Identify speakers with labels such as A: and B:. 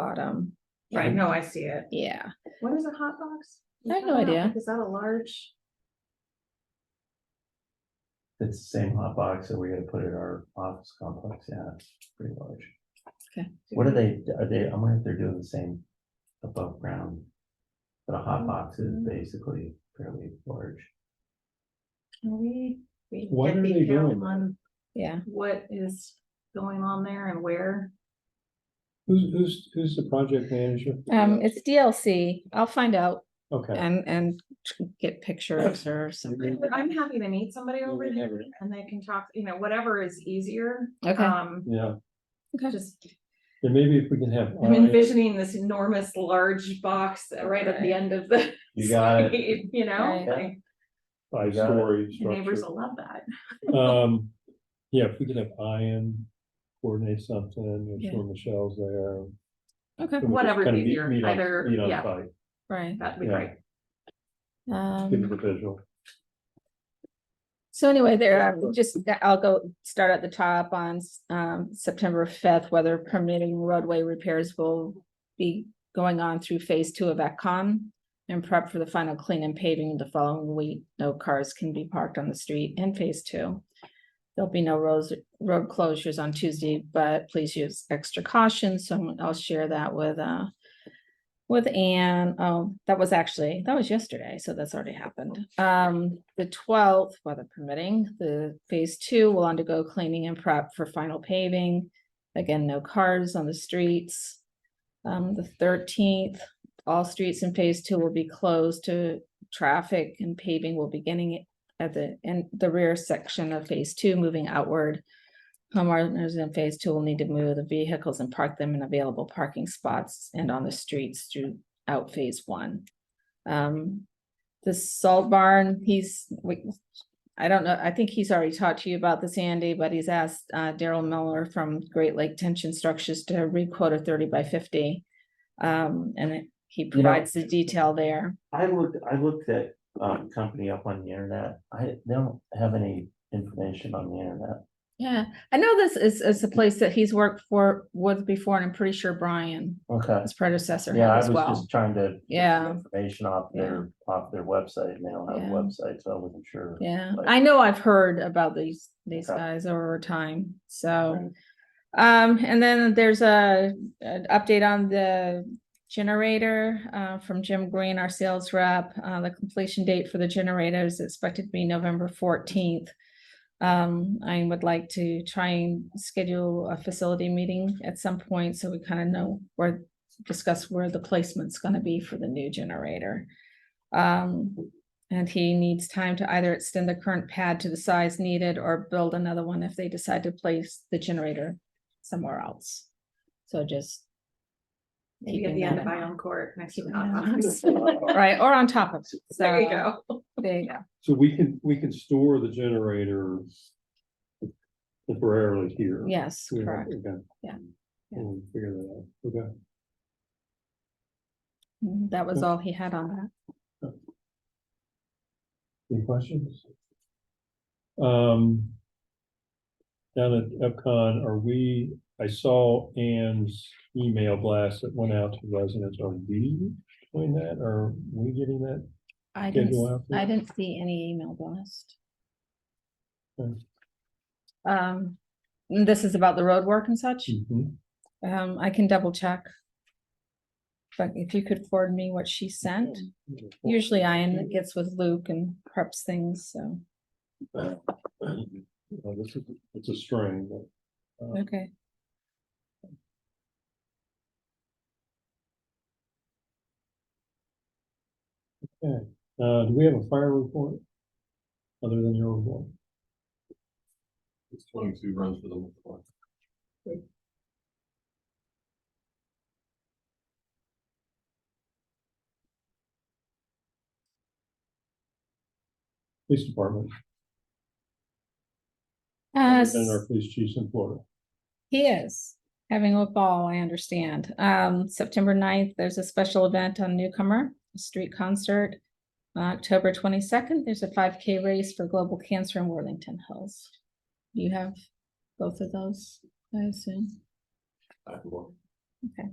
A: bottom.
B: Right, no, I see it.
A: Yeah,
B: What is a hot box?
A: I have no idea.
B: Is that a large?
C: It's the same hot box that we gotta put at our office complex, yeah, it's pretty large.
A: Okay.
C: What are they, are they, I wonder if they're doing the same above ground? But a hot box is
A: Mm-hmm.
B: Mhm.
C: basically fairly large.
B: Can we? we
D: What
B: get
D: are they
B: detail
D: doing?
B: on
A: yeah.
B: What is going on there and where?
D: Who's, who's, who's the project manager?
A: Um, it's DLC. I'll find out
D: Okay.
A: and, and get pictures or something.
B: I'm happy to meet somebody
D: Yeah,
B: over there
D: whatever.
B: and they can talk, you know, whatever is easier.
A: Okay.
B: Um,
D: Yeah,
B: just
D: and maybe if we can have.
B: I'm envisioning this enormous large box right at the end of the.
C: You got it.
B: street, You know,
A: Right.
B: like,
D: Five
C: got it.
D: story
B: the neighbors
D: structure.
B: will love that.
D: Um, yeah, if we could have Ian coordinate something, make
A: Yeah.
D: sure Michelle's there.
A: Okay,
D: and we just
B: Whatever's
D: kind of meet-
B: easier,
D: meet on-
B: either-
D: meet on
B: yeah.
D: site,
A: right.
B: That'd be
D: Yeah.
B: great.
D: Give
A: Um,
D: it a visual.
A: so anyway, there, um, just, I'll go start at the top on, um, September fifth, whether permitting roadway repairs will be going on through phase two of Ecom and prep for the final clean and paving the following week. No cars can be parked on the street in phase two. There'll be no roads, road closures on Tuesday, but please use extra caution. So I'll share that with, uh, with Anne. Oh, that was actually, that was yesterday, so that's already happened. Um, the twelfth, weather permitting, the phase two will undergo cleaning and prep for final paving. Again, no cars on the streets. Um, the thirteenth, all streets in phase two will be closed to traffic and paving will beginning at the, in the rear section of phase two, moving outward. Homeowners in phase two will need to move the vehicles and park them in available parking spots and on the streets throughout phase one. Um, the salt barn, he's, we, I don't know, I think he's already talked to you about this, Andy, but he's asked, uh, Daryl Miller from Great Lake Tension Structures to requote a thirty by fifty. Um, and it- he
C: You know-
A: provides the detail there.
C: I looked, I looked that um company up on the internet, I they don't have any information on the internet.
A: Yeah, I know this is, is a place that he's worked for, with before, and I'm pretty sure Brian,
C: Okay,
A: his predecessor had
C: yeah, I
A: as
C: was
A: well.
C: just trying to. get some
A: Yeah.
C: Information off their, off their website, and they don't have a
A: Yeah.
C: website, so I wasn't sure.
A: Yeah,
C: like-
A: I know I've heard about these, these
C: Okay.
A: guys over time, so.
C: Right.
A: Um, and then there's a, an update on the generator, uh, from Jim Green, our sales rep. Uh, the completion date for the generator is expected to be November fourteenth. Um, I would like to try and schedule a facility meeting at some point, so we kind of know where, discuss where the placement's gonna be for the new generator. Um, and he needs time to either extend the current pad to the size needed or build another one if they decide to place the generator somewhere else. So just.
B: Maybe at
A: keeping
B: the end
A: that
B: of
A: in
B: my
A: mind.
B: own court next to the
A: Keeping that
B: hot
A: in
B: box.
A: Right, or on top of. it.
B: There you
A: So,
B: go.
A: There you go.
D: So we can, we can store the generator temporarily here.
A: Yes,
D: We have-
A: correct.
D: okay.
A: Yeah.
D: We'll figure that out. Okay.
A: Mm, That was
D: Okay.
A: all he had on that.
D: Any questions? Um. Down at EPCON, are we, I saw Ann's email blast that went out to residents. Are we doing that? Are we getting that?
A: I
D: Did
A: didn't,
D: you
A: s-
D: have to?
A: I didn't see any email blast.
D: Okay.
A: Um, this is about the road work and such.
D: Mhm.
A: Um, I can double check. But if you could forward me what she sent, usually Ian gets with Luke and preps things, so,
D: Uh, This is, it's a string, but. uh,
A: okay.
D: Uh, do we have a fire report? Other than your report?
E: It's twenty-two runs for the whole course.
D: Police department.
A: Uh,
D: Other than our police chiefs in Florida.
A: He is having a ball, I understand. Um, September 9th, there's a special event on Newcomer, a street concert. Uh, October twenty-second, there's a five K race for global cancer in Worthington Hills. You have both of those, I assume.
E: I have one.
A: Okay.